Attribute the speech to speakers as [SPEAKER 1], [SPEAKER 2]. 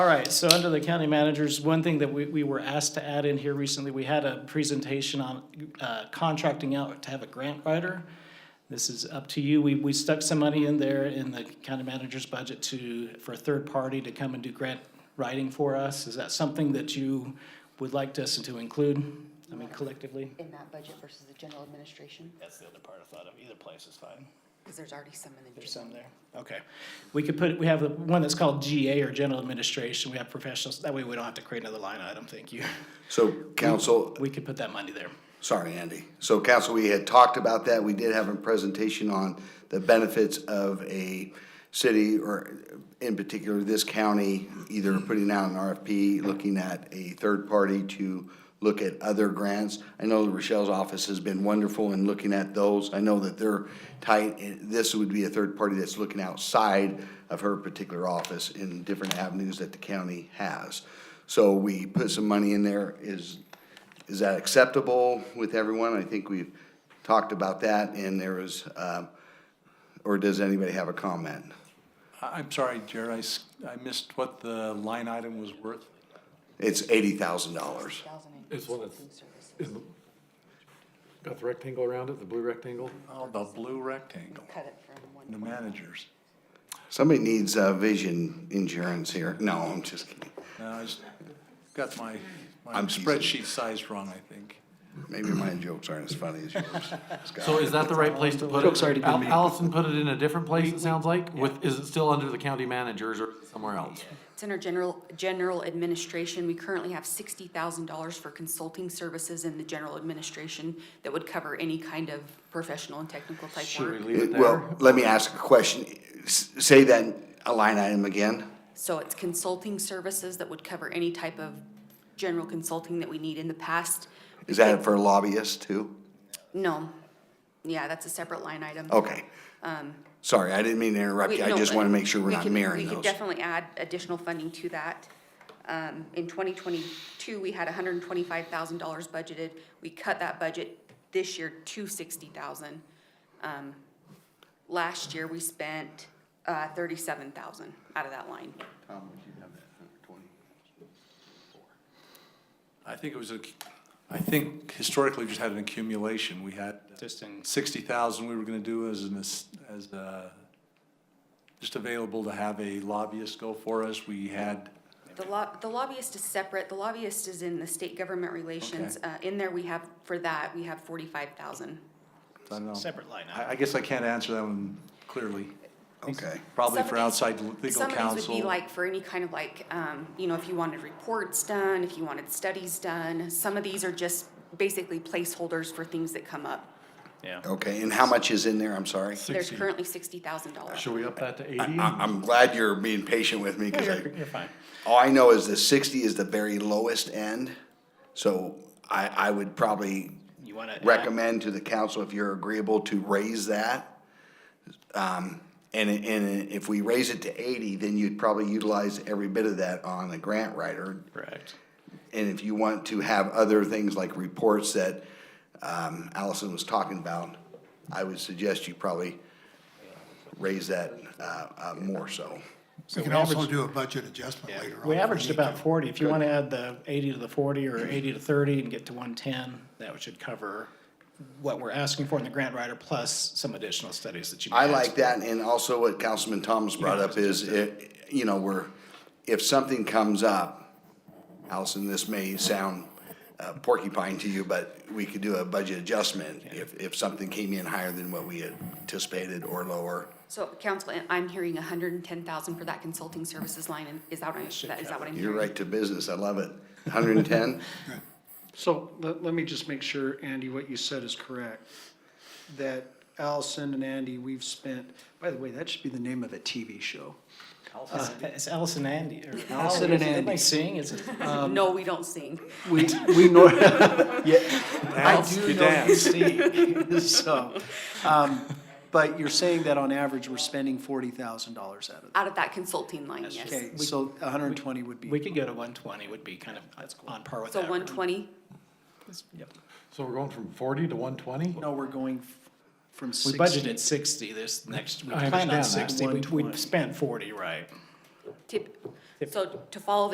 [SPEAKER 1] All right, so under the county managers, one thing that we, we were asked to add in here recently, we had a presentation on uh, contracting out to have a grant writer. This is up to you. We, we stuck some money in there in the county manager's budget to, for a third party to come and do grant writing for us. Is that something that you would like us to include, I mean collectively?
[SPEAKER 2] in that budget versus the general administration?
[SPEAKER 1] That's the other part I thought of. Either place is fine.
[SPEAKER 2] Because there's already some in the
[SPEAKER 1] There's
[SPEAKER 2] general.
[SPEAKER 1] some there. Okay. We could put, we have the one that's called GA or General Administration. We have professionals. That way we don't have to create another line item. Thank you.
[SPEAKER 3] So council,
[SPEAKER 1] We could put that money there.
[SPEAKER 3] sorry, Andy. So council, we had talked about that. We did have a presentation on the benefits of a city or in particular this county, either putting out an RFP, looking at a third party to look at other grants. I know Rochelle's office has been wonderful in looking at those. I know that they're tight. and This would be a third party that's looking outside of her particular office in different avenues that the county has. So we put some money in there. Is, is that acceptable with everyone? I think we've talked about that, and there was, um, or does anybody have a comment?
[SPEAKER 4] I- I'm sorry, Jared, I s- I missed what the line item was worth.
[SPEAKER 3] It's eighty thousand dollars.
[SPEAKER 2] Thousand and
[SPEAKER 5] It's one of-
[SPEAKER 2] food services.
[SPEAKER 5] Is the- Got the rectangle around it, the blue rectangle?
[SPEAKER 4] Oh, the blue rectangle,
[SPEAKER 2] Cut it from one.
[SPEAKER 4] the managers.
[SPEAKER 3] Somebody needs, uh, vision insurance here. No, I'm just kidding.
[SPEAKER 4] Now, I s- got my, my
[SPEAKER 3] I'm teasing.
[SPEAKER 4] spreadsheet size wrong, I think.
[SPEAKER 3] Maybe my jokes aren't as funny as yours,
[SPEAKER 5] So
[SPEAKER 3] Scott.
[SPEAKER 5] is that the right place to put it?
[SPEAKER 1] Joke's already been
[SPEAKER 5] Al-
[SPEAKER 1] made.
[SPEAKER 5] Allison put it in a different place, it sounds like, with, is it still under the county managers or somewhere else?
[SPEAKER 6] It's in our general, general administration. We currently have sixty thousand dollars for consulting services in the general administration that would cover any kind of professional and technical type
[SPEAKER 5] Should we
[SPEAKER 6] work.
[SPEAKER 5] leave it
[SPEAKER 3] Well,
[SPEAKER 5] there?
[SPEAKER 3] let me ask a question. S- Say that, a line item again?
[SPEAKER 6] So it's consulting services that would cover any type of general consulting that we need in the past.
[SPEAKER 3] Is that for lobbyists too?
[SPEAKER 6] No, yeah, that's a separate line item.
[SPEAKER 3] Okay. Sorry, I didn't mean to
[SPEAKER 6] Um,
[SPEAKER 3] interrupt
[SPEAKER 6] We-
[SPEAKER 3] you. I
[SPEAKER 6] no,
[SPEAKER 3] just
[SPEAKER 6] but
[SPEAKER 3] wanna make sure we're
[SPEAKER 6] we
[SPEAKER 3] not
[SPEAKER 6] could-
[SPEAKER 3] mirroring
[SPEAKER 6] We could
[SPEAKER 3] those.
[SPEAKER 6] definitely add additional funding to that. Um, in twenty twenty-two, we had hundred and twenty-five thousand dollars budgeted. We cut that budget this year to sixty thousand. Um, last year, we spent, uh, thirty-seven thousand out of that line.
[SPEAKER 4] I think it was, a. I think historically we just had an accumulation. We had
[SPEAKER 1] Just in,
[SPEAKER 4] sixty thousand we were gonna do as an, as, as, uh, just available to have a lobbyist go for us. We had,
[SPEAKER 6] The lob, the lobbyist is separate. The lobbyist is in the state government relations.
[SPEAKER 4] Okay.
[SPEAKER 6] Uh, in there, we have, for that, we have forty-five thousand.
[SPEAKER 4] I don't know.
[SPEAKER 1] Separate line item.
[SPEAKER 4] I, I guess I can't answer that one clearly,
[SPEAKER 3] Okay.
[SPEAKER 4] probably
[SPEAKER 6] Some
[SPEAKER 4] for
[SPEAKER 6] of these-
[SPEAKER 4] outside legal
[SPEAKER 6] Some of these would be
[SPEAKER 4] counsel.
[SPEAKER 6] like for any kind of like, um, you know, if you wanted reports done, if you wanted studies done. Some of these are just basically placeholders for things that come up.
[SPEAKER 1] yeah.
[SPEAKER 3] Okay, and how much is in there? I'm sorry.
[SPEAKER 6] There's
[SPEAKER 5] 60.
[SPEAKER 6] currently sixty thousand dollars.
[SPEAKER 5] Should we up that to eighty?
[SPEAKER 3] I, I'm glad you're being patient with me, cause I.
[SPEAKER 1] You're fine.
[SPEAKER 3] All I know is the sixty is the very lowest end, so I, I would probably
[SPEAKER 1] You wanna? add-
[SPEAKER 3] recommend to the council, if you're agreeable, to raise that. Um, and, and if we raise it to eighty, then you'd probably utilize every bit of that on a grant writer.
[SPEAKER 1] Correct.
[SPEAKER 3] And if you want to have other things like reports that, um, Allison was talking about, I would suggest you probably raise that, uh, uh, more so.
[SPEAKER 7] We can also do a budget adjustment later on.
[SPEAKER 1] We
[SPEAKER 7] if
[SPEAKER 1] averaged
[SPEAKER 7] need
[SPEAKER 1] about
[SPEAKER 7] to.
[SPEAKER 1] forty. If you wanna add the eighty to the forty or eighty to thirty and get to one ten, that should cover what we're asking for in the grant writer plus some additional studies that you. may
[SPEAKER 3] I
[SPEAKER 1] ask
[SPEAKER 3] like
[SPEAKER 1] for.
[SPEAKER 3] that, and also what Councilman Thomas brought up is, it- you know, we're, if something comes up, Allison, this may sound uh, porcupine to you, but we could do a budget adjustment if, if something came in higher than what we had anticipated or lower.
[SPEAKER 6] So council, I- I'm hearing a hundred and ten thousand for that consulting services line and is that, what I- that- is that what I'm
[SPEAKER 3] You're
[SPEAKER 6] hearing?
[SPEAKER 3] right to business, I love it. Hundred and ten?
[SPEAKER 8] So let, let me just make sure, Andy, what you said is correct. That Allison and Andy, we've spent, by the way, that should be the name of a TV show.
[SPEAKER 1] It's Uh, Allison Andy. or-
[SPEAKER 8] Allison and
[SPEAKER 1] Am I
[SPEAKER 8] Andy.
[SPEAKER 1] seeing? Is it?
[SPEAKER 6] No, we don't sing.
[SPEAKER 8] We, we nor, I
[SPEAKER 4] Dance,
[SPEAKER 8] do
[SPEAKER 4] you
[SPEAKER 8] know you
[SPEAKER 4] dance.
[SPEAKER 8] see, so. um, But you're saying that on average, we're spending forty thousand dollars out of that.
[SPEAKER 6] Out of that consulting line, yes.
[SPEAKER 8] Okay, so a hundred and twenty would
[SPEAKER 1] We
[SPEAKER 8] be,
[SPEAKER 1] could go to one twenty would be kind of on par with that.
[SPEAKER 6] So one twenty,
[SPEAKER 1] Yep.
[SPEAKER 5] So we're going from forty to one twenty?
[SPEAKER 8] no, we're going f- from
[SPEAKER 1] We
[SPEAKER 8] sixty.
[SPEAKER 1] budgeted sixty this next, we
[SPEAKER 5] I
[SPEAKER 1] planned on
[SPEAKER 5] understand that.
[SPEAKER 1] sixty, we, we spent forty, right?
[SPEAKER 6] tip, So to follow the